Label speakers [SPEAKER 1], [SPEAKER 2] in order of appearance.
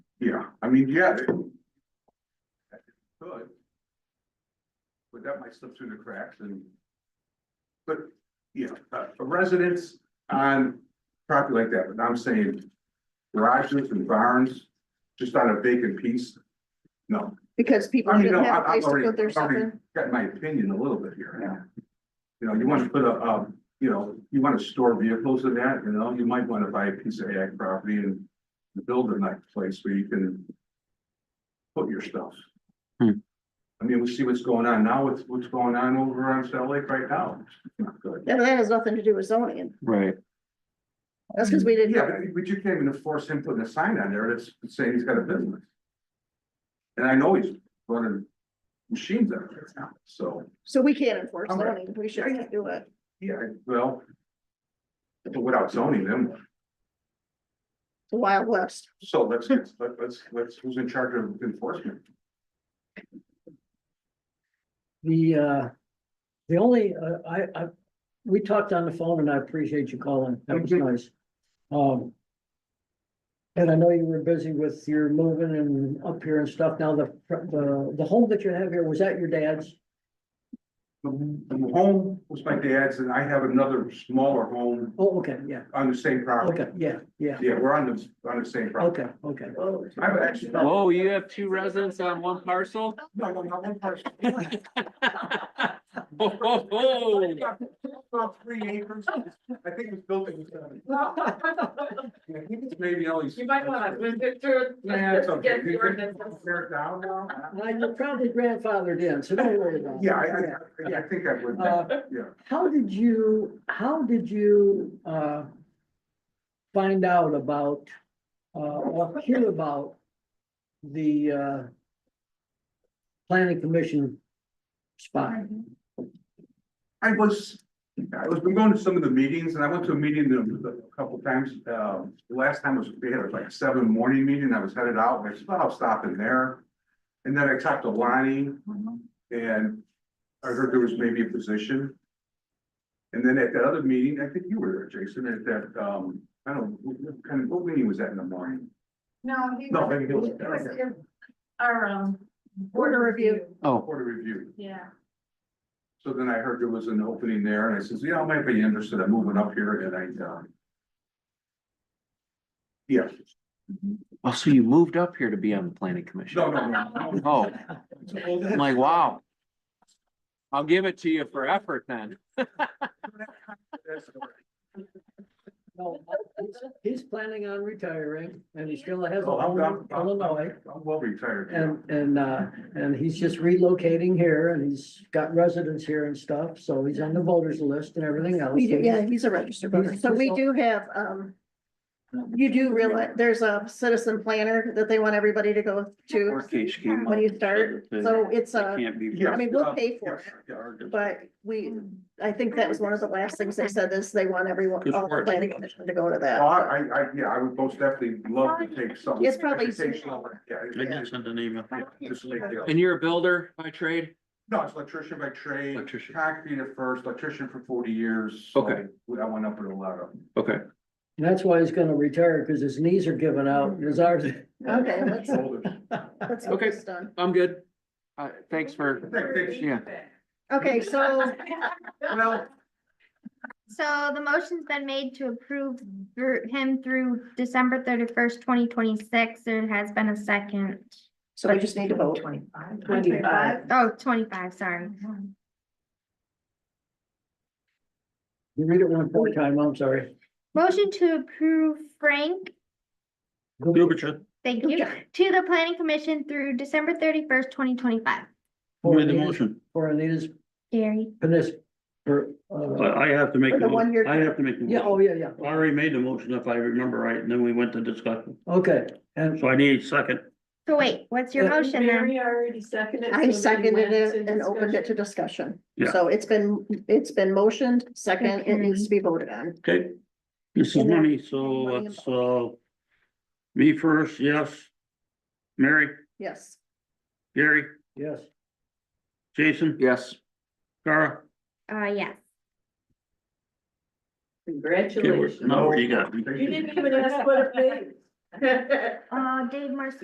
[SPEAKER 1] mean, yeah. it- Good. But that might slip through the cracks and. But, yeah, a a residence on property like that, but I'm saying garages and barns, just on a vacant piece. No,
[SPEAKER 2] Because people
[SPEAKER 1] I mean, no,
[SPEAKER 2] didn't have
[SPEAKER 1] I-
[SPEAKER 2] a
[SPEAKER 1] I've
[SPEAKER 2] place to
[SPEAKER 1] already,
[SPEAKER 2] put their
[SPEAKER 1] I've
[SPEAKER 2] stuff
[SPEAKER 1] already
[SPEAKER 2] in.
[SPEAKER 1] got my opinion a little bit here. You know, you want to put a, um, you know, you want to store vehicles in that, you know, you might want to buy a piece of ag property and build a nice place where you can put your stuff.
[SPEAKER 3] Hmm.
[SPEAKER 1] I mean, we see what's going on now, what's, what's going on over on Salt Lake right now. It's Not good.
[SPEAKER 2] And that has nothing to do with zoning.
[SPEAKER 3] Right,
[SPEAKER 2] That's because we
[SPEAKER 1] Mm, Yeah,
[SPEAKER 2] didn't,
[SPEAKER 1] but- but you can't even force him putting a sign on there that's saying he's got a business. And I know he's running machines out there now, so.
[SPEAKER 2] so we can't enforce
[SPEAKER 1] I'm right.
[SPEAKER 2] zoning. We shouldn't do it.
[SPEAKER 1] Yeah, well. But without zoning them,
[SPEAKER 2] The Wild West.
[SPEAKER 1] so let's, let's, let's, let's, who's in charge of enforcement?
[SPEAKER 4] The, uh, the only, uh, I, I, we talked on the phone and I appreciate you calling. That was
[SPEAKER 1] Mhm.
[SPEAKER 4] nice. Um. And I know you were busy with your moving and up here and stuff. Now, the, the, the home that you have here, was that your dad's?
[SPEAKER 1] The the home was my dad's and I have another smaller home
[SPEAKER 4] Oh, okay, yeah,
[SPEAKER 1] on the same property.
[SPEAKER 4] okay, yeah, yeah,
[SPEAKER 1] Yeah, we're on the, on the same property.
[SPEAKER 4] okay, okay.
[SPEAKER 1] I've actually.
[SPEAKER 3] oh, you have two residents on one parcel?
[SPEAKER 1] No, no, not one person.
[SPEAKER 3] Ho, ho, ho.
[SPEAKER 1] About three acres. I think it was built in seven. I think it's maybe only.
[SPEAKER 5] You might wanna visit through.
[SPEAKER 1] Yeah, it's okay.
[SPEAKER 5] Get the ordinance.
[SPEAKER 1] Tear it down now?
[SPEAKER 4] Well, you're probably grandfathered in, so don't worry about it.
[SPEAKER 1] Yeah, I, I, I think I would,
[SPEAKER 4] Uh,
[SPEAKER 1] yeah.
[SPEAKER 4] How did you, how did you, uh, find out about, uh, or hear about the, uh, planning commission spot?
[SPEAKER 1] I was, I was, been going to some of the meetings and I went to a meeting a a couple times, um, the last time was, they had like a seven morning meeting, I was headed out, and I said, "Oh, I'll stop in there. And then I talked to Lonnie and I heard there was maybe a position. And then at the other meeting, I think you were there, Jason, at that, um, I don't, know, what what kind of, what meeting was that in the morning?
[SPEAKER 5] No, he
[SPEAKER 1] No,
[SPEAKER 5] was,
[SPEAKER 1] maybe it
[SPEAKER 5] it
[SPEAKER 1] was-
[SPEAKER 5] was in our, um.
[SPEAKER 2] Board review.
[SPEAKER 3] Oh,
[SPEAKER 1] Board of review.
[SPEAKER 5] Yeah.
[SPEAKER 1] So then I heard there was an opening there and I says, yeah, I might be interested in moving up here and I, uh. Yeah,
[SPEAKER 3] oh, so you moved up here to be on the planning commission?
[SPEAKER 1] no, no, no, no.
[SPEAKER 3] Oh, I'm like, wow. I'll give it to you for effort then.
[SPEAKER 4] No, he's- He's planning on retiring and he still has a
[SPEAKER 1] Oh, I'm-
[SPEAKER 4] home
[SPEAKER 1] I'm-
[SPEAKER 4] in
[SPEAKER 1] I'm-
[SPEAKER 4] Illinois.
[SPEAKER 1] I'm well retired. now.
[SPEAKER 4] And, and, uh, and he's just relocating here and he's got residence here and stuff, so he's on the voters list and everything else.
[SPEAKER 2] We do, yeah, he's a registered voter.
[SPEAKER 4] He's-
[SPEAKER 2] So we do have, um, you do realize, there's a citizen planner that they want everybody to go to when you start. So it's a,
[SPEAKER 3] Can't be.
[SPEAKER 1] Yeah,
[SPEAKER 2] I mean, we'll
[SPEAKER 1] uh,
[SPEAKER 2] pay for it,
[SPEAKER 1] yeah, yeah.
[SPEAKER 2] but we, I think that was one of the last things they said is they want everyone,
[SPEAKER 3] Good
[SPEAKER 2] all the
[SPEAKER 3] word.
[SPEAKER 2] planning commission to go
[SPEAKER 1] Well,
[SPEAKER 2] to that.
[SPEAKER 1] I, I, I- yeah, I would most definitely love to take some.
[SPEAKER 2] It's probably-
[SPEAKER 1] educational, Yeah. yeah,
[SPEAKER 3] send an email.
[SPEAKER 1] just like, yeah.
[SPEAKER 3] And you're a builder by trade?
[SPEAKER 1] No, it's electrician by trade.
[SPEAKER 3] Electrician.
[SPEAKER 1] Concrete at first, electrician for forty years. so
[SPEAKER 3] Okay.
[SPEAKER 1] I went up with a lot of. them.
[SPEAKER 3] Okay.
[SPEAKER 4] And that's why he's gonna retire, cause his knees are giving out, his ours.
[SPEAKER 2] Okay, let's,
[SPEAKER 1] Shoulders.
[SPEAKER 2] let's get
[SPEAKER 3] Okay.
[SPEAKER 2] this done.
[SPEAKER 3] I'm good. Uh, thanks for, Yeah.
[SPEAKER 2] Okay, so,
[SPEAKER 1] Well,
[SPEAKER 6] So the motion's been made to approve through him through December thirty-first, twenty twenty-six. There has been a second.
[SPEAKER 2] so we just need to vote.
[SPEAKER 5] Twenty-five.
[SPEAKER 2] Twenty-five.
[SPEAKER 6] Oh, 25, sorry.
[SPEAKER 4] You read it one more time, I'm sorry.
[SPEAKER 6] Motion to approve Frank, thank you,
[SPEAKER 2] Okay.
[SPEAKER 6] to the planning commission through December thirty-first, twenty twenty-five.
[SPEAKER 4] For Anita's- For Anita's,
[SPEAKER 6] Gary,
[SPEAKER 4] penis, for, uh,
[SPEAKER 7] But I have to make,
[SPEAKER 2] For the
[SPEAKER 7] the
[SPEAKER 2] one
[SPEAKER 7] mo-
[SPEAKER 2] year
[SPEAKER 7] I have to make, the
[SPEAKER 4] yeah,
[SPEAKER 7] motion.
[SPEAKER 4] oh, yeah, yeah,
[SPEAKER 7] I already made the motion if I remember right, and then we went to discussion,
[SPEAKER 4] okay, and,
[SPEAKER 7] so I need a second.
[SPEAKER 6] so wait, what's your
[SPEAKER 4] Yeah.
[SPEAKER 6] motion then?
[SPEAKER 5] Uh, Mary already seconded.
[SPEAKER 2] I seconded it and opened it to discussion.
[SPEAKER 7] Yeah.
[SPEAKER 2] So it's been, it's been motioned, second, it needs to be voted on.
[SPEAKER 7] Okay. This is
[SPEAKER 2] And then-
[SPEAKER 7] money, so it's, uh, me first, yes. Mary,
[SPEAKER 2] Yes.
[SPEAKER 7] Gary,
[SPEAKER 4] yes.
[SPEAKER 7] Jason,
[SPEAKER 3] yes.
[SPEAKER 7] Cara,
[SPEAKER 6] Uh, yes.
[SPEAKER 7] okay, we're-
[SPEAKER 5] Congratulations.
[SPEAKER 7] now what do you got?
[SPEAKER 5] You didn't even ask what it means.
[SPEAKER 6] Uh, Dave Marcy.